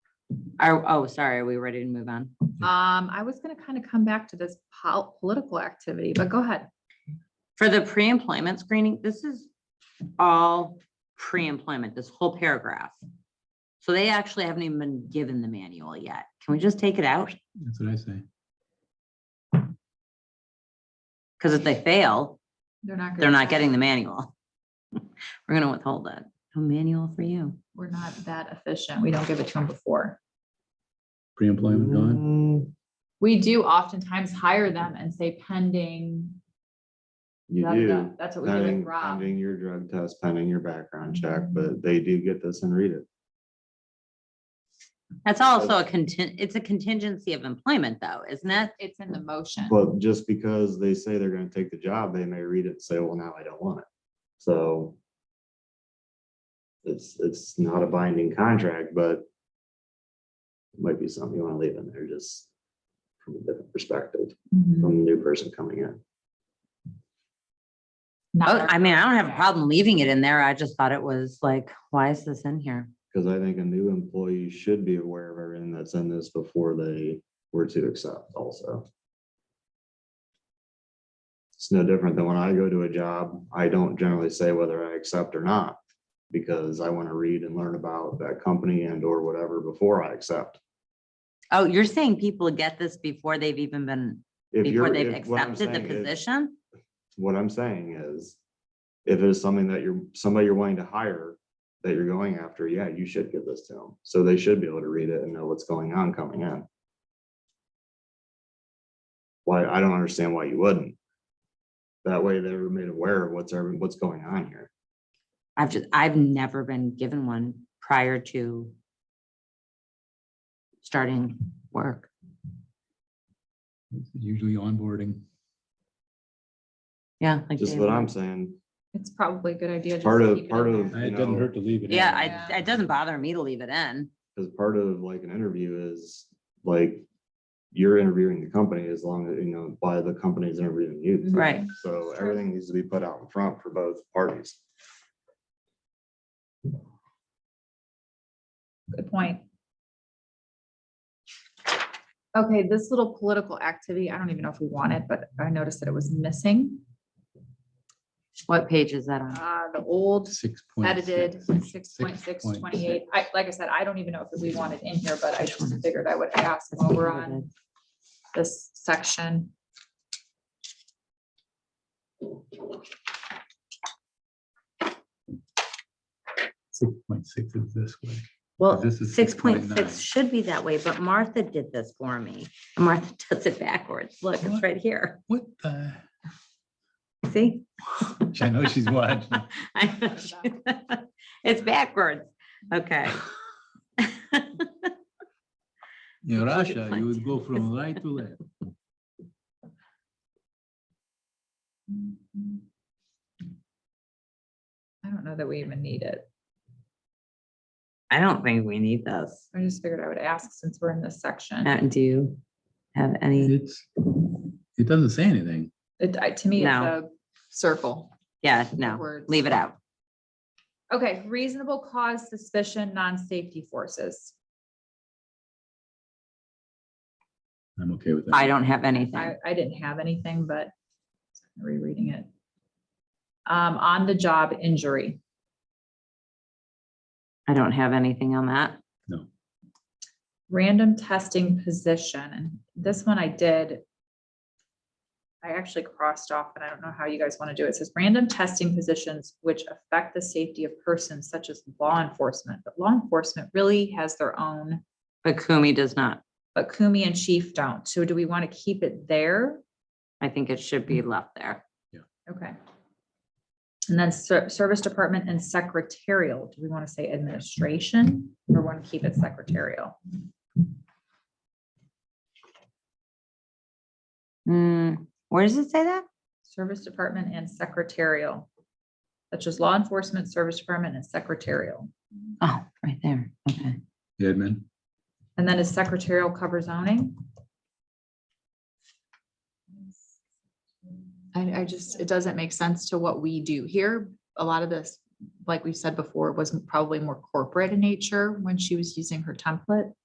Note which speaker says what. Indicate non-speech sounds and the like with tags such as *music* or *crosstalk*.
Speaker 1: Are, oh, sorry, are we ready to move on?
Speaker 2: Um, I was gonna kind of come back to this pol- political activity, but go ahead.
Speaker 1: For the pre-employment screening, this is all pre-employment, this whole paragraph. So they actually haven't even been given the manual yet. Can we just take it out?
Speaker 3: That's what I say.
Speaker 1: Because if they fail,
Speaker 2: They're not. gonna
Speaker 1: they're not
Speaker 2: test.
Speaker 1: getting the manual. *laughs* We're gonna withhold that. No manual for you.
Speaker 2: We're not that efficient. We don't give it to them before.
Speaker 3: Pre-employment gone.
Speaker 4: Mm,
Speaker 2: We do oftentimes hire them and say pending.
Speaker 4: You
Speaker 2: da, da, da.
Speaker 4: do,
Speaker 2: That's what we do with
Speaker 4: pending,
Speaker 2: Rob.
Speaker 4: pending your drug test, pending your background check, but they do get this and read it.
Speaker 1: That's also a content, it's a contingency of employment though, isn't it?
Speaker 2: It's in the motion.
Speaker 4: But just because they say they're gonna take the job, they may read it and say, well, now I don't want it. So it's, it's not a binding contract, but it might be something you wanna leave in there, just from a different perspective,
Speaker 2: Mhm.
Speaker 4: from the new person coming in.
Speaker 2: Not
Speaker 1: Oh,
Speaker 2: our-
Speaker 1: I mean, I don't have a
Speaker 2: Yeah.
Speaker 1: problem leaving it in there. I just thought it was like, why is this in here?
Speaker 4: Cause I think a new employee should be aware of everything that's in this before they were to accept also. It's no different than when I go to a job, I don't generally say whether I accept or not. Because I wanna read and learn about that company and or whatever before I accept.
Speaker 1: Oh, you're saying people get this before they've even been,
Speaker 4: If
Speaker 1: before
Speaker 4: you're-
Speaker 1: they've
Speaker 4: if- what I'm
Speaker 1: accepted the
Speaker 4: saying is-
Speaker 1: position?
Speaker 4: What I'm saying is, if it is something that you're, somebody you're wanting to hire, that you're going after, yeah, you should give this to them. So they should be able to read it and know what's going on coming in. Why, I don't understand why you wouldn't. That way they were made aware of what's, every- what's going on here.
Speaker 1: I've just, I've never been given one prior to starting work.
Speaker 3: It's Usually onboarding.
Speaker 1: Yeah. like
Speaker 4: Just
Speaker 1: Dave
Speaker 4: what I'm
Speaker 1: said.
Speaker 4: saying,
Speaker 2: It's probably a good idea. just
Speaker 4: Part
Speaker 2: to
Speaker 4: of-
Speaker 2: keep it
Speaker 4: part
Speaker 2: in
Speaker 4: of-
Speaker 2: there.
Speaker 3: It doesn't hurt to leave it. in.
Speaker 1: Yeah,
Speaker 2: Yeah.
Speaker 1: I, it doesn't bother me to leave it in.
Speaker 4: because part of like an interview is like, you're interviewing the company as long as, you know, by the company's interviewing you. too.
Speaker 1: Right.
Speaker 4: So everything needs to be put out in front for both parties.
Speaker 2: Good point. Okay, this little political activity, I don't even know if we want it, but I noticed that it was missing.
Speaker 1: What page is that on?
Speaker 2: Uh, the old
Speaker 3: Six point
Speaker 2: edited
Speaker 3: six,
Speaker 2: six point six
Speaker 3: point
Speaker 2: twenty-eight. I, like I said, I don't even know if we want it in here, but I
Speaker 1: Which one
Speaker 2: just
Speaker 1: is
Speaker 2: figured I would ask
Speaker 1: That's
Speaker 2: while
Speaker 1: the
Speaker 2: we're
Speaker 1: edited.
Speaker 2: on this section.
Speaker 3: Six point six is this way.
Speaker 1: Well,
Speaker 3: This is
Speaker 1: six point
Speaker 3: 6.9.
Speaker 1: six should be that way, but Martha did this for me. And Martha *laughs* does it backwards. Look, it's
Speaker 3: What?
Speaker 1: right here.
Speaker 3: What the?
Speaker 1: See?
Speaker 3: I
Speaker 1: *laughs*
Speaker 3: know she's watching.
Speaker 1: I know *laughs* she- It's backwards. Okay. *laughs*
Speaker 3: In Russia,
Speaker 1: fine.
Speaker 3: you would go
Speaker 1: *laughs*
Speaker 3: from right to left.
Speaker 2: I don't know that we even need it.
Speaker 1: I don't think we need this.
Speaker 2: I just figured I would ask since we're in this section.
Speaker 1: Matt, do you have any?
Speaker 3: It's, it doesn't say anything.
Speaker 2: It, I- to me, it's a
Speaker 1: No.
Speaker 2: circle.
Speaker 1: Yeah, no,
Speaker 2: Words.
Speaker 1: leave it out.
Speaker 2: Okay, reasonable cause suspicion, non-safety forces.
Speaker 3: I'm okay with that.
Speaker 1: I don't have
Speaker 2: I,
Speaker 1: anything.
Speaker 2: I didn't have anything, but rereading it. Um, on the job injury.
Speaker 1: I don't have anything on that.
Speaker 2: random testing position, and this one I did. I actually crossed off, and I don't know how you guys want to do it. It says random testing positions which affect the safety of persons such as law enforcement, but law enforcement really has their own,
Speaker 1: But Kumi does not.
Speaker 2: but Kumi and Chief don't. So do we want to keep it there?
Speaker 1: I think it should be left there.
Speaker 2: Okay. And then ser- Service Department and Secretarial, do we want to say administration or want to keep it secretarial?
Speaker 1: Hmm, where does it say that?
Speaker 2: Service Department and Secretarial. Such as Law Enforcement, Service Department, and Secretarial.
Speaker 1: Oh, right there. Okay.
Speaker 3: Edmund,
Speaker 2: And then is Secretarial cover zoning? I, I just, it doesn't make sense to what we do here. A lot of this, like we said before, was probably more corporate in nature when she was using her template.